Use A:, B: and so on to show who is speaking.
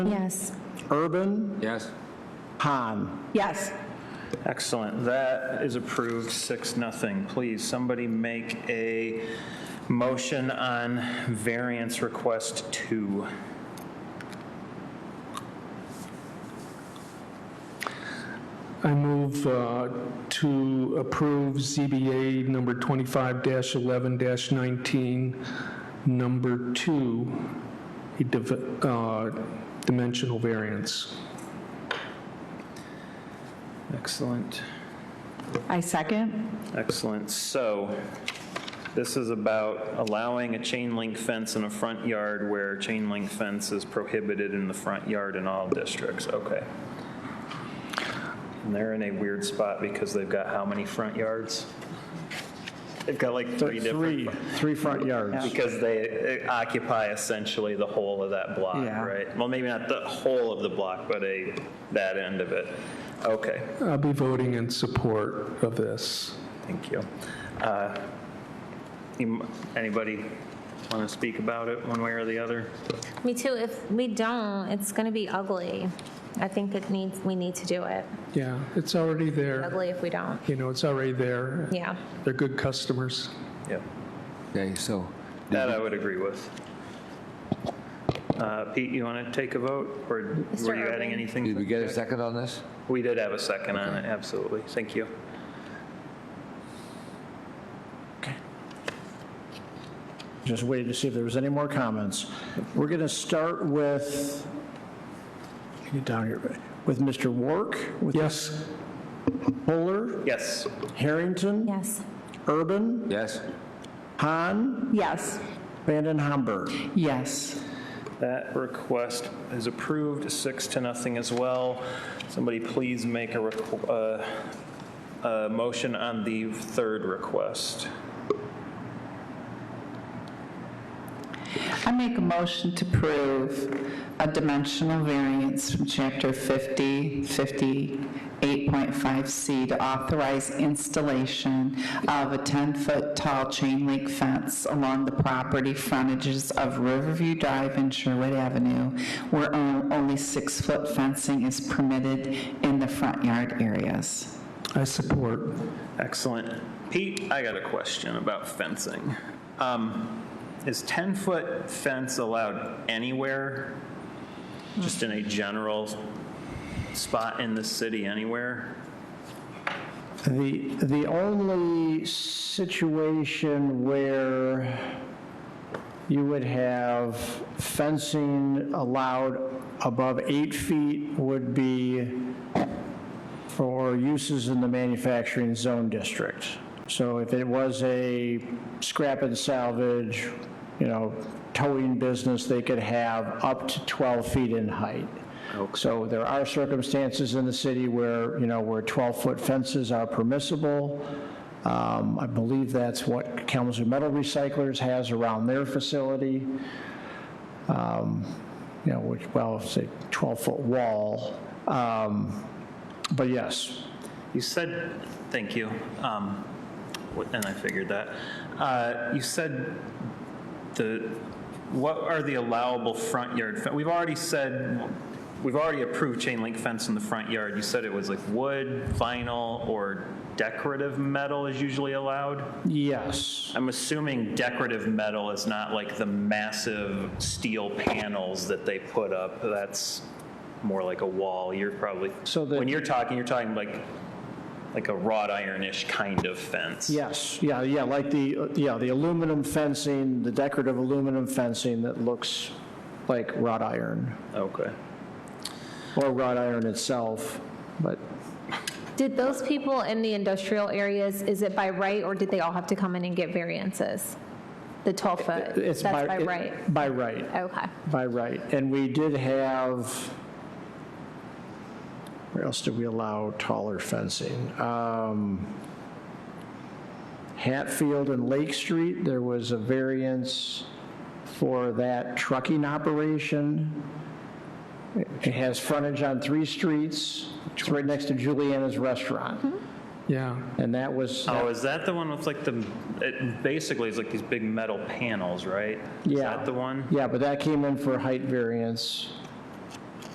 A: Yes.
B: Urban,
C: Yes.
B: Han.
A: Yes.
D: Excellent. That is approved, six, nothing. Please, somebody make a motion on variance request two.
E: I move uh, to approve ZBA number 25-11-19, number two, a div- uh, dimensional variance.
D: Excellent.
A: I second.
D: Excellent. So this is about allowing a chain link fence in a front yard where chain link fence is prohibited in the front yard in all districts. Okay. And they're in a weird spot because they've got how many front yards? They've got like three different.
B: Three, three front yards.
D: Because they occupy essentially the whole of that block,
B: Yeah.
D: right? Well, maybe not the whole of the block, but a, that end of it. Okay.
E: I'll be voting in support of this.
D: Thank you. Uh, you- Anybody want to speak about it one way or the other?
F: Me too. If we don't, it's going to be ugly. I think it needs, we need to do it.
E: Yeah, it's already there.
F: Ugly if we don't.
E: You know, it's already there.
F: Yeah.
E: They're good customers.
D: Yeah.
C: Okay, so,
D: That I would agree with. Uh, Pete, you want to take a vote, or were you adding
F: Irving.
D: anything?
C: did we get a second on this?
D: We did have a second on it, absolutely. Thank you.
B: Just waiting to see if there was any more comments. We're going to start with, get down here, with Mr. Wark, with
E: Yes,
B: Fuller,
D: Yes,
B: Harrington,
F: Yes.
B: Urban,
C: Yes?
B: Han,
A: Yes.
B: Vanden Hamburg.
A: Yes.
D: that request is approved, six to nothing as well. Somebody please make a requ- uh, a motion on the third request.
G: I make a motion to approve a dimensional variance from Chapter 50, 58.5C to authorize installation of a 10-foot tall chain link fence along the property frontages of Riverview Drive and Sherwood Avenue, where on- only six-foot fencing is permitted in the front yard areas.
E: I support.
D: Excellent. Pete, I got a question about fencing. Um, Is 10-foot fence allowed anywhere? Just in a general spot in the city, anywhere?
B: The, the only situation where you would have fencing allowed above eight feet would be for uses in the manufacturing zone district. So if it was a scrap and salvage, you know, towing business, they could have up to 12 feet in height. So there are circumstances in the city where, you know, where 12-foot fences are permissible. Um, I believe that's what Kalamazoo Metal Recyclers has around their facility Um, you know, which, well, it's a 12-foot wall. Um, But yes,
D: You said, thank you, um, and I figured that. Uh, You said the, what are the allowable front yard? fe- We've already said, we've already approved chain link fence in the front yard. You said it was like wood, vinyl, or decorative metal is usually allowed?
B: yes,
D: I'm assuming decorative metal is not like the massive steel panels that they put up. That's more like a wall. You're probably,
B: So the-
D: when you're talking, you're talking like, like a wrought ironish kind of fence.
B: yes, yeah, yeah, like the, uh, yeah, the aluminum fencing, the decorative aluminum fencing that looks like wrought iron,
D: Okay.
B: or wrought iron itself, but
F: Did those people in the industrial areas, is it by right or did they all have to come in and get variances? The 12 foot?
B: it's by...
F: Uh, That's by
B: it-
F: right.
B: By right.
F: Okay.
B: By right, and we did have, where else did we allow taller fencing? Um, Hatfield and Lake Street, there was a variance for that trucking operation. It- It has frontage on three streets, it's right next to Juliana's Restaurant,
E: Yeah,
B: and that was,
D: Oh, is that the one with like the, it basically is like these big metal panels, right? Is
B: Yeah.
D: that the one?
B: yeah, but that came in for height variance.